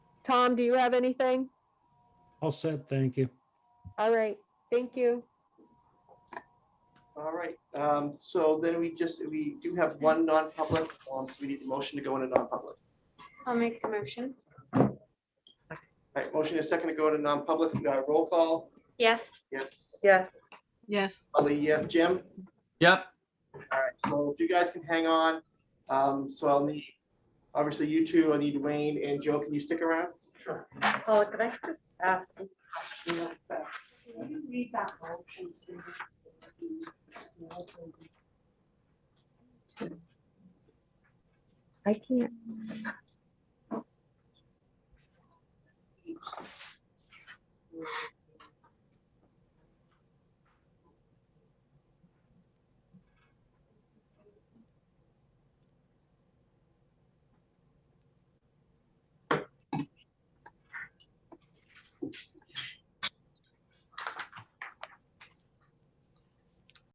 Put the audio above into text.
Tom, do you have anything? All set, thank you. All right, thank you. All right, um, so then we just, we do have one non-public, um, so we need the motion to go into non-public. I'll make the motion. All right, motion is second to go into non-public, we got a roll call, Yes. yes, Yes. Yes. Ali, yes, Jim? Yep, All right, so if you guys can hang on, um, so I'll need, obviously you two, I need Wayne and Joe, can you stick around? Sure. Paula, could I just ask? I can't.